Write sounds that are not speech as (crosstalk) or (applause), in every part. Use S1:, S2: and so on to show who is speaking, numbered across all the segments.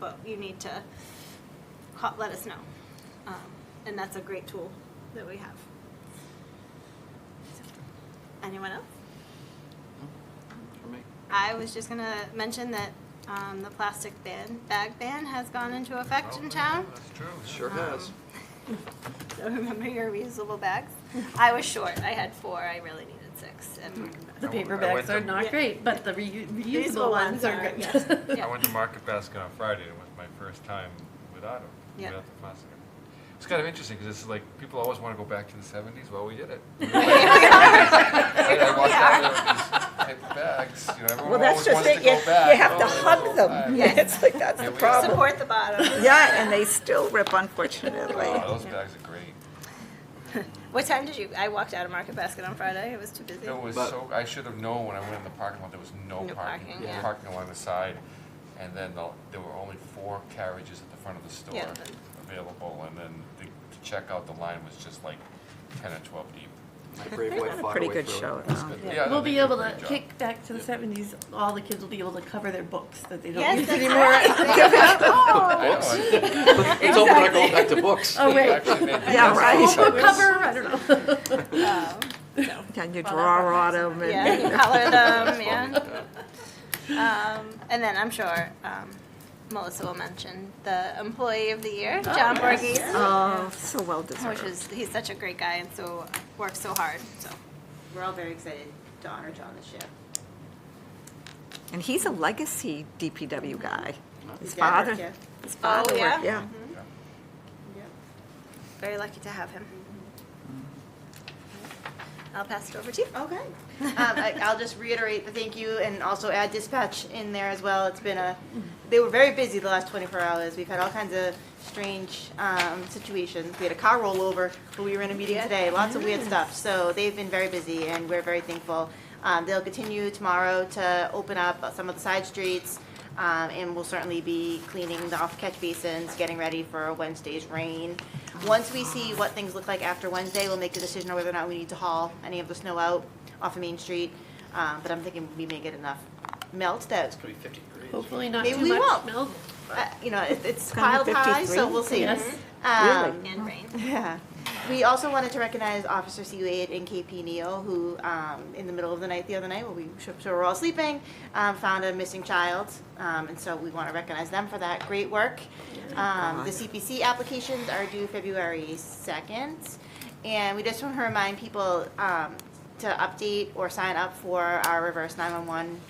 S1: but you need to co- let us know. Um, And that's a great tool that we have. So, Anyone else?
S2: For me.
S1: I was just gonna mention that um, the plastic ban, bag ban has gone into effect in town. Um,
S3: That's true. Oh, yeah.
S2: Sure has.
S1: (laughs) So remember your reusable bags. I was short. I had four. I really needed six. And
S3: I
S4: The
S3: went-
S4: paper
S3: I went
S4: bags are
S3: to-
S1: Yeah.
S4: not great, but the reu- reusable ones are great.
S1: yes.
S3: I
S4: (laughs)
S1: Yeah.
S3: went to Market Basket on Friday, and it was my first time without them,
S1: Yeah.
S3: without the plastic. It's kind of interesting, because it's like, people always want to go back to the seventies, well, we did
S1: (laughs)
S3: it. I walked out there with these paper bags, you know,
S5: Well,
S3: everyone
S5: that's
S3: always
S5: just
S3: wants to
S5: it, you,
S3: go back.
S5: you have to
S3: Oh, they go
S5: hug
S3: back.
S5: them.
S1: Yeah.
S5: It's (laughs) like, that's
S3: Yeah,
S5: the
S3: we-
S5: problem.
S1: Support the bottom.
S5: Yeah, and they still rip unfortunately.
S3: Oh, Those bags are great.
S1: (laughs) What time did you? I walked out of Market Basket on Friday. It was too busy.
S3: It was
S2: But-
S3: so, I should have known when I went in the parking lot, there was no
S1: No
S3: parking.
S1: parking,
S3: There was
S1: yeah.
S3: Parking along the side, and then the- there were only four carriages at the front of the store
S1: Yeah, then-
S3: available, and then the- to check out, the line was just like ten or twelve deep.
S2: My brave wife
S5: Had a
S2: fought
S5: pretty
S2: her way
S5: good
S2: through it.
S5: show,
S2: It was
S5: though.
S3: good.
S4: Yeah,
S3: Yeah,
S4: We'll
S3: they
S4: be
S3: did a
S4: able to
S3: great job.
S4: kick back to the seventies, all the kids will be able to cover their books that they don't
S1: Yes,
S4: use
S1: that's
S4: anymore.
S3: (laughs) I know, I-
S2: (laughs) It's open, I go back to books. (laughs)
S4: Oh, wait.
S3: Actually,
S4: (laughs)
S3: they did
S5: Yeah,
S3: that
S5: right.
S3: on
S4: Book
S3: purpose.
S4: cover, I don't know. (laughs)
S1: Um,
S5: Can you draw on them?
S1: yeah, you color
S2: (laughs)
S1: them.
S3: That's
S1: Oh, Yeah.
S3: what we did.
S1: Um, and then I'm sure um, Melissa will mention the Employee of the Year, John Borghese,
S5: (laughs) Oh, so well
S1: which
S5: deserved.
S1: is he's such a great guy and so works so hard. So
S6: We're all very excited to honor John this year.
S1: (laughs)
S5: And he's a legacy DPW guy. His
S6: dad
S5: father,
S6: worked here.
S5: his father
S1: Oh, yeah?
S5: worked, yeah.
S1: very lucky to have him. I'll pass it over to you.
S6: Okay. Um, I- I'll just reiterate the thank you and also add dispatch in there as well. It's been a, they were very busy the last 24 hours. We've had all kinds of strange um, situations. We had a car rollover, but we were in a meeting today, lots of weird stuff. So they've been very busy and we're very thankful. Um, They'll continue tomorrow to open up some of the side streets um, and we'll certainly be cleaning the off-catch basins, getting ready for Wednesday's rain. Once we see what things look like after Wednesday, we'll make the decision on whether or not we need to haul any of the snow out off of Main Street. Um, But I'm thinking we may get enough melt that,
S2: It's gonna be fifty degrees.
S4: Hopefully not
S6: Maybe
S4: too
S6: we
S4: much
S6: won't.
S4: milk.
S6: uh, you know, it- it's
S5: gonna
S6: piled
S5: be
S6: high, so
S5: 53?
S6: we'll see.
S4: Yes.
S6: Um,
S5: Really?
S1: And rain.
S6: yeah. We also wanted to recognize Officer C Wade and KP Neo, who, um, in the middle of the night the other night, while we sure sure were all sleeping, um, found a missing child. Um, and so we want to recognize them for that great work. Um, the CPC applications are due February second. And we just want to remind people, um, to update or sign up for our reverse nine-one-one,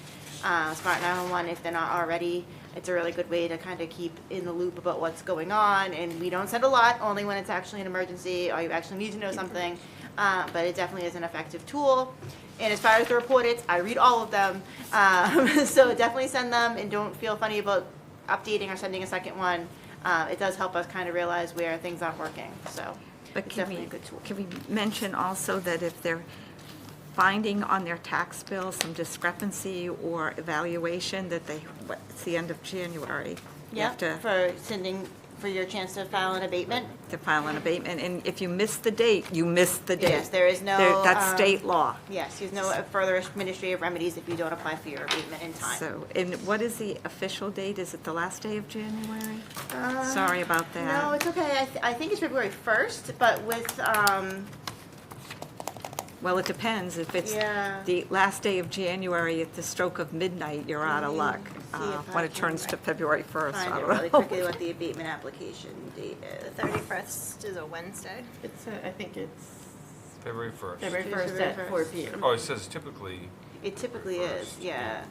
S6: uh, smart nine-one-one if they're not already. It's a really good way to kind of keep in the loop about what's going on, and we don't send a lot, only when it's actually an emergency or you actually need to know something. Uh, but it definitely is an effective tool. And as far as the report it's, I read all of them. Um, (laughs) so definitely send them and don't feel funny about updating or sending a second one. Uh, it does help us kind of realize where things aren't working, so
S5: But
S6: it's
S5: can
S6: definitely
S5: we,
S6: a good tool.
S5: can we mention also that if they're finding on their tax bill some discrepancy or evaluation, that they, what- it's the end of January. You have
S6: Yeah,
S5: to
S6: for sending, for your chance to file an abatement.
S5: to file an abatement, and if you miss the date, you miss the date.
S6: Yes, there is no,
S5: There- That's
S6: um,
S5: state law.
S6: Yes, there's no further administrative remedies if you don't apply for your abatement in time.
S5: So, and what is the official date? Is it the last day of January? Sorry about that.
S6: Uh, Um, No, it's okay. I, th- I think it's February first, but with, um,
S5: Well, it depends. If it's
S6: Yeah.
S5: the last day of January at the stroke of midnight, you're out of luck.
S6: Mm, see
S5: Uh,
S6: if I
S5: When it
S6: can
S5: turns to February 1st,
S6: find
S5: I
S6: it really
S5: don't know.
S6: quickly what the abatement application date
S1: The
S6: is.
S1: 31st is a Wednesday.
S4: It's, uh, I think it's
S3: February first.
S4: February
S6: February
S4: first at four
S6: 1st.
S4: P M.
S3: Oh, it says typically,
S6: It typically is,
S3: First,
S6: yeah.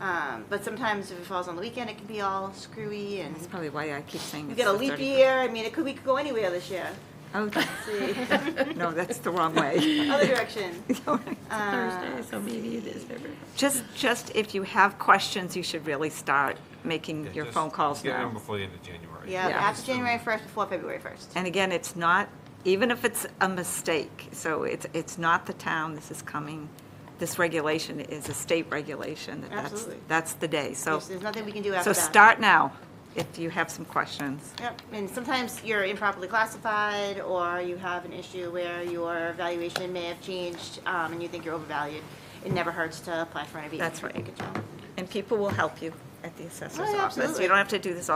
S6: Um, but sometimes if it falls on the weekend, it can be all screwy
S5: (laughs)
S6: and
S5: That's probably why I keep saying
S6: we
S5: it's
S6: get a
S5: the
S6: leap
S5: 31st. (laughs)
S6: year. I mean, it could, we could go anywhere this year.
S5: Oh,
S6: See,
S5: no, that's the wrong way. (laughs)
S6: other direction.
S4: Uh,
S6: Uh,
S4: Thursday, so maybe it is February.
S5: Just, just if you have questions, you should really start making
S3: yeah,
S5: your
S3: just
S5: phone calls
S3: Get it in
S5: now.
S3: before the end of January.
S6: Yeah,
S5: Yeah.
S6: after January first, before February first.
S5: And again, it's not, even if it's a mistake, so it's, it's not the town, this is coming, this regulation is a state regulation, that that's,
S6: Absolutely.
S5: that's the day, so.
S6: There's there's nothing we can do
S5: So
S6: after that.
S5: start now, if you have some questions.
S6: Yep, and sometimes you're improperly classified, or you have an issue where your valuation may have changed, um, and you think you're overvalued. It never hurts to apply for an abatement.
S5: That's right.
S6: Good job.
S5: And people will help you at the
S6: Oh,
S5: assessor's
S6: yeah,
S5: office.
S6: absolutely.
S5: You don't have to do this all